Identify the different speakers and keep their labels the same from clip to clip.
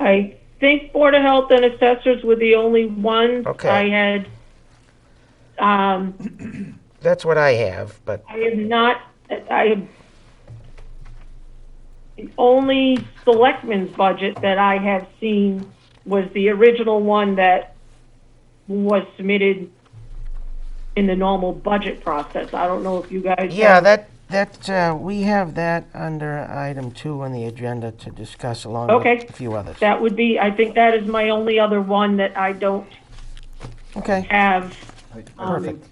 Speaker 1: I think Board of Health and assessors were the only ones
Speaker 2: Okay.
Speaker 1: I had. Um,
Speaker 2: That's what I have, but
Speaker 1: I have not, I have, the only selectmen's budget that I have seen was the original one that was submitted in the normal budget process. I don't know if you guys.
Speaker 2: yeah, that, that, uh, we have that under item two on the agenda to discuss along
Speaker 1: Okay.
Speaker 2: with a few others.
Speaker 1: That would be, I think that is my only other one that I don't
Speaker 2: Okay,
Speaker 1: have. um,
Speaker 2: Perfect.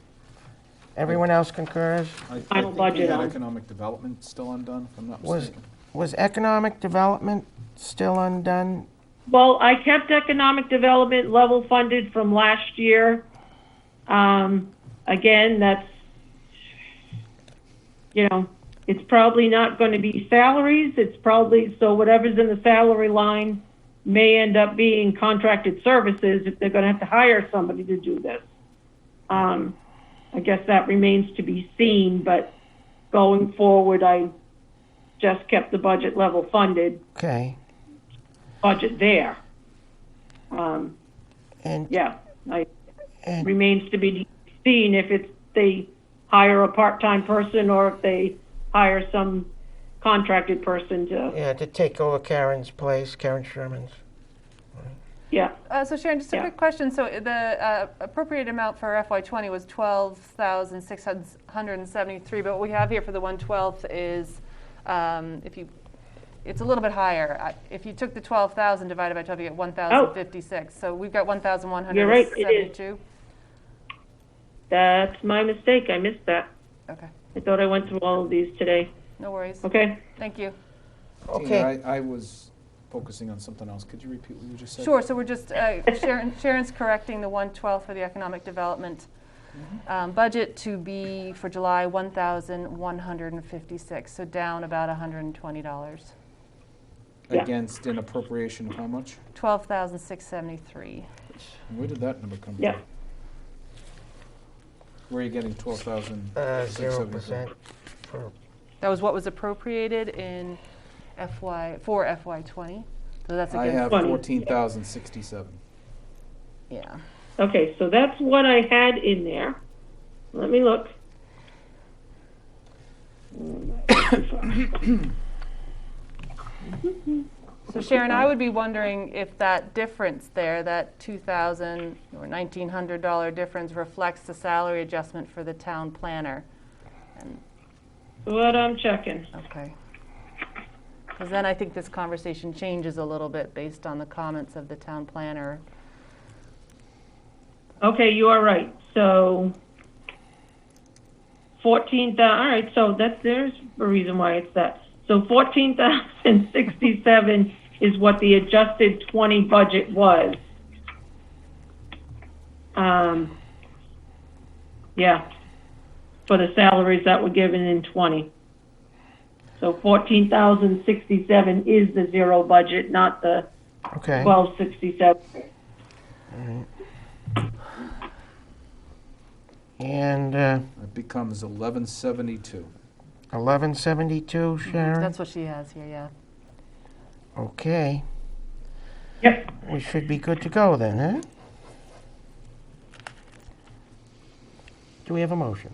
Speaker 2: everyone else concurs?
Speaker 3: I- I
Speaker 1: Final
Speaker 3: think we
Speaker 1: budget
Speaker 3: had
Speaker 1: on-
Speaker 3: Economic development still undone, if I'm not
Speaker 2: Was,
Speaker 3: mistaken.
Speaker 2: was economic development still undone?
Speaker 1: Well, I kept economic development level funded from last year. Um, again, that's, you know, it's probably not going to be salaries. It's probably, so whatever's in the salary line may end up being contracted services if they're going to have to hire somebody to do this. Um, I guess that remains to be seen, but going forward, I just kept the budget level funded
Speaker 2: Okay,
Speaker 1: budget there. Um,
Speaker 2: and,
Speaker 1: yeah, I,
Speaker 2: and,
Speaker 1: remains to be seen if it's, they hire a part-time person or if they hire some contracted person to,
Speaker 2: yeah, to take over Karen's place, Karen Sherman's.
Speaker 1: yeah.
Speaker 4: Uh, So Sharon, just a
Speaker 1: Yeah.
Speaker 4: quick question. So the uh, appropriate amount for FY '20 was 12,673, but what we have here for the 1/12 is, um, if you, it's a little bit higher. I- If you took the 12,000 divided by 12, you get 1,056. So we've got 1,172.
Speaker 1: Oh. You're right, it That's my mistake, I missed that.
Speaker 4: Okay,
Speaker 1: I thought I went through all of these today.
Speaker 4: no worries.
Speaker 1: Okay,
Speaker 4: Thank you.
Speaker 2: Okay. Uh,
Speaker 3: Tina, I, I was focusing on something else. Could you repeat what you just said?
Speaker 4: Sure, so we're just, uh, Sharon- Sharon's correcting the 112 for the economic development
Speaker 3: Mm-hmm.
Speaker 4: um, budget to be for July 1,156, so down about $120.
Speaker 1: Yeah.
Speaker 3: Against an appropriation of how much?
Speaker 4: 12,673.
Speaker 3: And Where did that number come from?
Speaker 1: Yeah.
Speaker 3: Where are you getting twelve thousand
Speaker 2: Uh,
Speaker 3: six
Speaker 2: zero
Speaker 3: seventy-three?
Speaker 2: percent for,
Speaker 4: That was what was appropriated in FY, for FY '20, so that's
Speaker 3: I have
Speaker 4: against,
Speaker 1: Funny.
Speaker 3: fourteen thousand sixty-seven.
Speaker 4: yeah.
Speaker 1: okay, so that's what I had in there. Let me look.
Speaker 4: So Sharon, I would be wondering if that difference there, that 2,000 or $1,900 difference reflects the salary adjustment for the town planner. And
Speaker 1: What I'm checking.
Speaker 4: Okay. Because then I think this conversation changes a little bit based on the comments of the town planner.
Speaker 1: Okay, you are right. So fourteen thousand. All right, so that there's a reason why it's that. So fourteen thousand sixty-seven is what the adjusted twenty budget was. Um, yeah, for the salaries that were given in twenty. So fourteen thousand sixty-seven is the zero budget, not the
Speaker 2: okay.
Speaker 1: twelve sixty-seven.
Speaker 2: And, uh,
Speaker 3: It becomes eleven seventy-two.
Speaker 2: eleven seventy-two, Sharon?
Speaker 4: That's what she has here, yeah.
Speaker 2: Okay,
Speaker 1: Yep.
Speaker 2: we should be good to go then, huh? Do we have a motion?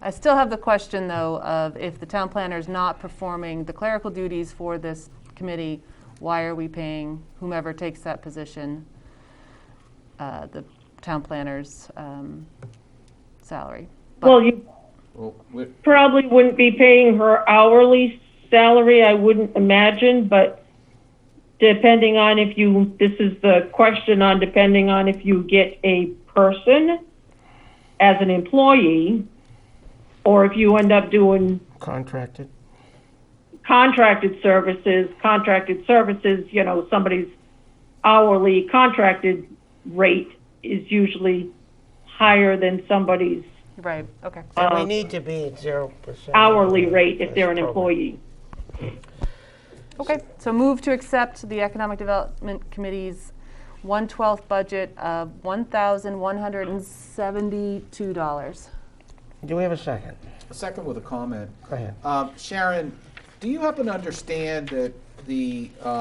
Speaker 4: I still have the question, though, of if the town planner is not performing the clerical duties for this committee, why are we paying whomever takes that position, uh, the town planner's um, salary? But-
Speaker 1: Well, you
Speaker 3: Well, wait,
Speaker 1: probably wouldn't be paying her hourly salary, I wouldn't imagine, but depending on if you, this is the question on depending on if you get a person as an employee, or if you end up doing
Speaker 2: Contracted?
Speaker 1: contracted services, contracted services, you know, somebody's hourly contracted rate is usually higher than somebody's
Speaker 4: Right, okay.
Speaker 2: And we
Speaker 1: Um,
Speaker 2: need to be at zero percent.
Speaker 1: hourly rate if they're an employee.
Speaker 4: Okay, so move to accept the Economic Development Committee's 1/12 budget of $1,172.
Speaker 2: Do we have a second?
Speaker 3: Second with a comment.
Speaker 2: Go ahead.
Speaker 3: Uh, Sharon, do you happen to understand that the, uh,